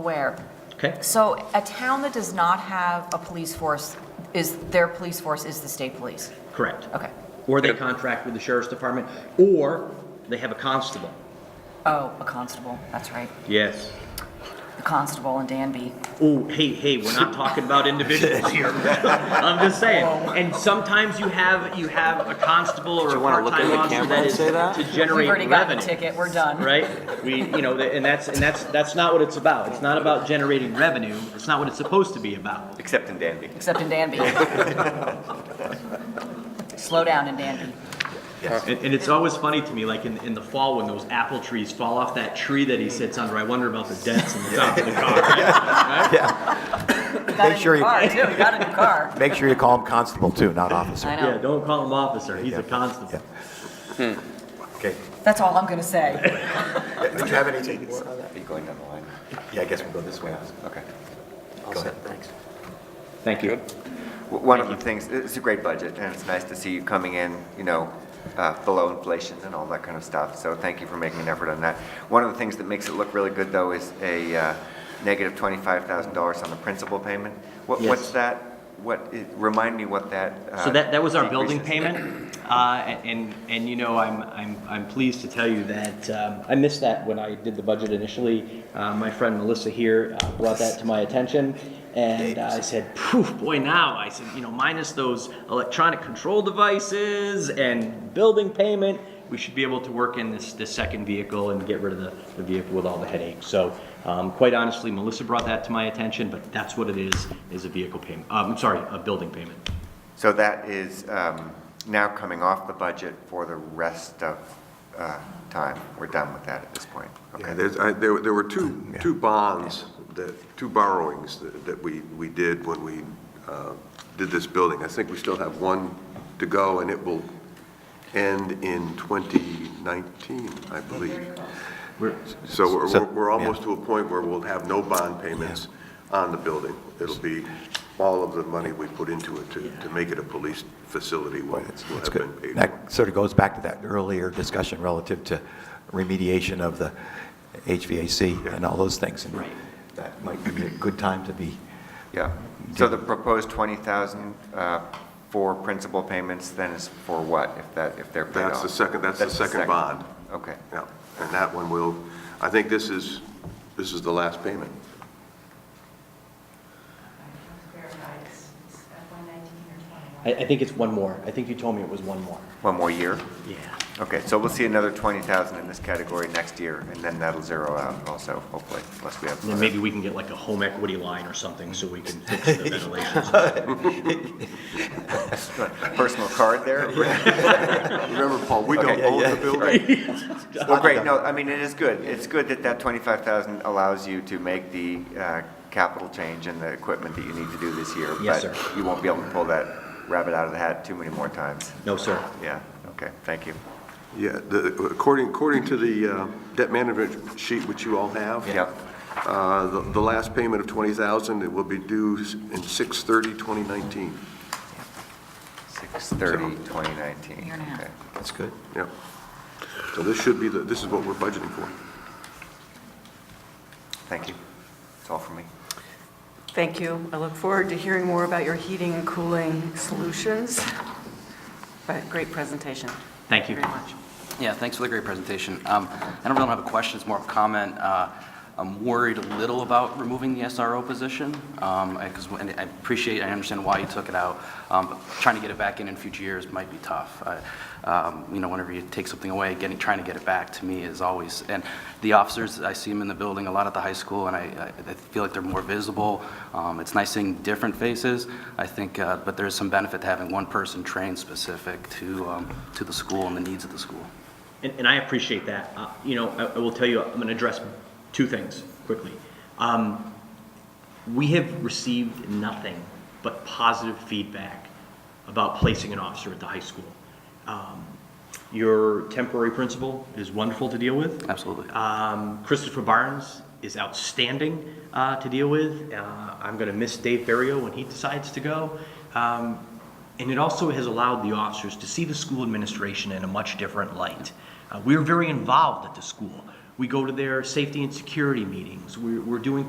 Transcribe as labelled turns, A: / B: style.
A: aware.
B: Okay.
A: So a town that does not have a police force is, their police force is the state police?
B: Correct.
A: Okay.
B: Or they contract with the sheriff's department, or they have a constable.
A: Oh, a constable, that's right.
B: Yes.
A: The constable in Danby.
B: Oh, hey, hey, we're not talking about individuals here. I'm just saying. And sometimes you have, you have a constable or a
C: you wanna look
B: part-time
C: in the
B: officer
C: camera
B: that
C: and
B: is
C: say that?
B: to
A: We've
B: generate
A: already got the
B: revenue,
A: ticket, we're done.
B: right? We, you know, and that's, and that's, that's not what it's about. It's not about generating revenue. It's not what it's supposed to be about.
C: Except in Danby.
A: Except in Danby. Slow down in Danby.
B: And, and it's always funny to me, like in, in the fall when those apple trees fall off that tree that he sits under, I wonder about the dents in the top of the car.
A: You Got a
D: Make sure
A: new
D: you-
A: car, too, you got a new car.
D: Make sure you call him constable too, not officer.
A: I
B: Yeah,
A: know.
B: don't call him officer, he's a constable.
D: Yeah. Okay.
A: That's all I'm gonna say.
D: Do you have anything?
C: Are you Oh, going down the line?
D: Yeah, I guess we'll go this way.
C: Okay.
D: Go ahead. Thanks.
B: Thank you.
C: W- One of the things, it's a great budget, and it's nice to see you coming in, you know, uh, below inflation and all that kind of stuff, so thank you for making an effort on that. One of the things that makes it look really good, though, is a uh, negative $25,000 on the principal payment. What-
B: Yes.
C: What's that, what, i- remind me what that. uh,
B: So that, that was our building
C: decrease is.
B: payment, uh, and, and you know, I'm, I'm, I'm pleased to tell you that, um, I missed that when I did the budget initially. Uh, my friend Melissa here uh, brought that to my attention, and I said, poof, boy, now, I said, you know, minus those electronic control devices and building payment, we should be able to work in this, this second vehicle and get rid of the, the vehicle with all the headaches. So, um, quite honestly, Melissa brought that to my attention, but that's what it is, is a vehicle payment, um, I'm sorry, a building payment.
C: So that is um, now coming off the budget for the rest of uh, time. We're done with that at this point.
E: Yeah,
C: Okay.
E: there's, I, there, were- there were two, two bonds, that, two borrowings that, that we, we did when we, uh, did this building. I think we still have one to go, and it will end in 2019, I believe. So we're,
D: So-
E: we're- we're almost to a point where we'll have no bond payments on the building. It'll be all of the money we put into it to, to make it a police facility will will
D: That's
E: have been paid
D: good.
E: for.
D: That sort of goes back to that earlier discussion relative to remediation of the HVAC and all those things. And
B: Right.
D: That might be a good time to be,
C: Yeah. So the proposed 20,000 uh, for principal payments then is for what, if that, if they're paid off?
E: That's the second, that's the second bond.
C: Okay.
E: Yeah, and that one will, I think this is, this is the last payment.
F: Verified, it's it's at 119 or 21.
B: I, I think it's one more. I think you told me it was one more.
C: One more year?
B: Yeah.
C: Okay, so we'll see another 20,000 in this category next year, and then that'll zero out also, hopefully, unless we have.
B: And then maybe we can get like a home equity line or something so we can fix the ventilation. system.
C: Personal card there?
E: Remember, Paul, we
C: Okay.
E: don't own the building.
C: Well, great, no, I mean, it is good. It's good that that 25,000 allows you to make the uh, capital change in the equipment that you need to do this year.
B: Yes, sir.
C: But you won't be able to pull that rabbit out of the hat too many more times.
B: No, sir.
C: Yeah, okay, thank you.
E: Yeah, the, according, according to the uh, debt management sheet, which you all have.
C: Yeah.
E: uh, The, the last payment of 20,000, it will be due in 6/30/2019.
C: 6:30, 2019.
A: Year and a half.
C: Okay.
D: that's good.
E: Yep. So this should be, the this is what we're budgeting for.
C: Thank you. That's all for me.
G: Thank you. I look forward to hearing more about your heating and cooling solutions. But great presentation.
B: Thank you.
G: Very much.
H: Yeah, thanks for the great presentation. Um, I don't really have a question, it's more of a comment. Uh, I'm worried a little about removing the SRO position, because I appreciate, I understand why you took it out, um, but trying to get it back in in future years might be tough. I- um, You know, whenever you take something away, getting, trying to get it back to me is always, and the officers, I see them in the building a lot at the high school, and I I- I feel like they're more visible. Um, It's nice seeing different faces, I think, uh, but there is some benefit to having one person trained specific to um, to the school and the needs of the school.
B: And, and I appreciate that. Uh, You know, I, I will tell you, I'm going to address two things quickly. Um, We have received nothing but positive feedback about placing an officer at the high school. Um, Your temporary principal is wonderful to deal with.
H: Absolutely.
B: Um, Christopher Barnes is outstanding uh, to deal with. Uh, I'm going to miss Dave Ferriero when he decides to go. Um, and it also has allowed the officers to see the school administration in a much different light. Uh, we're very involved at the school. We go to their safety and security meetings. We're, we're doing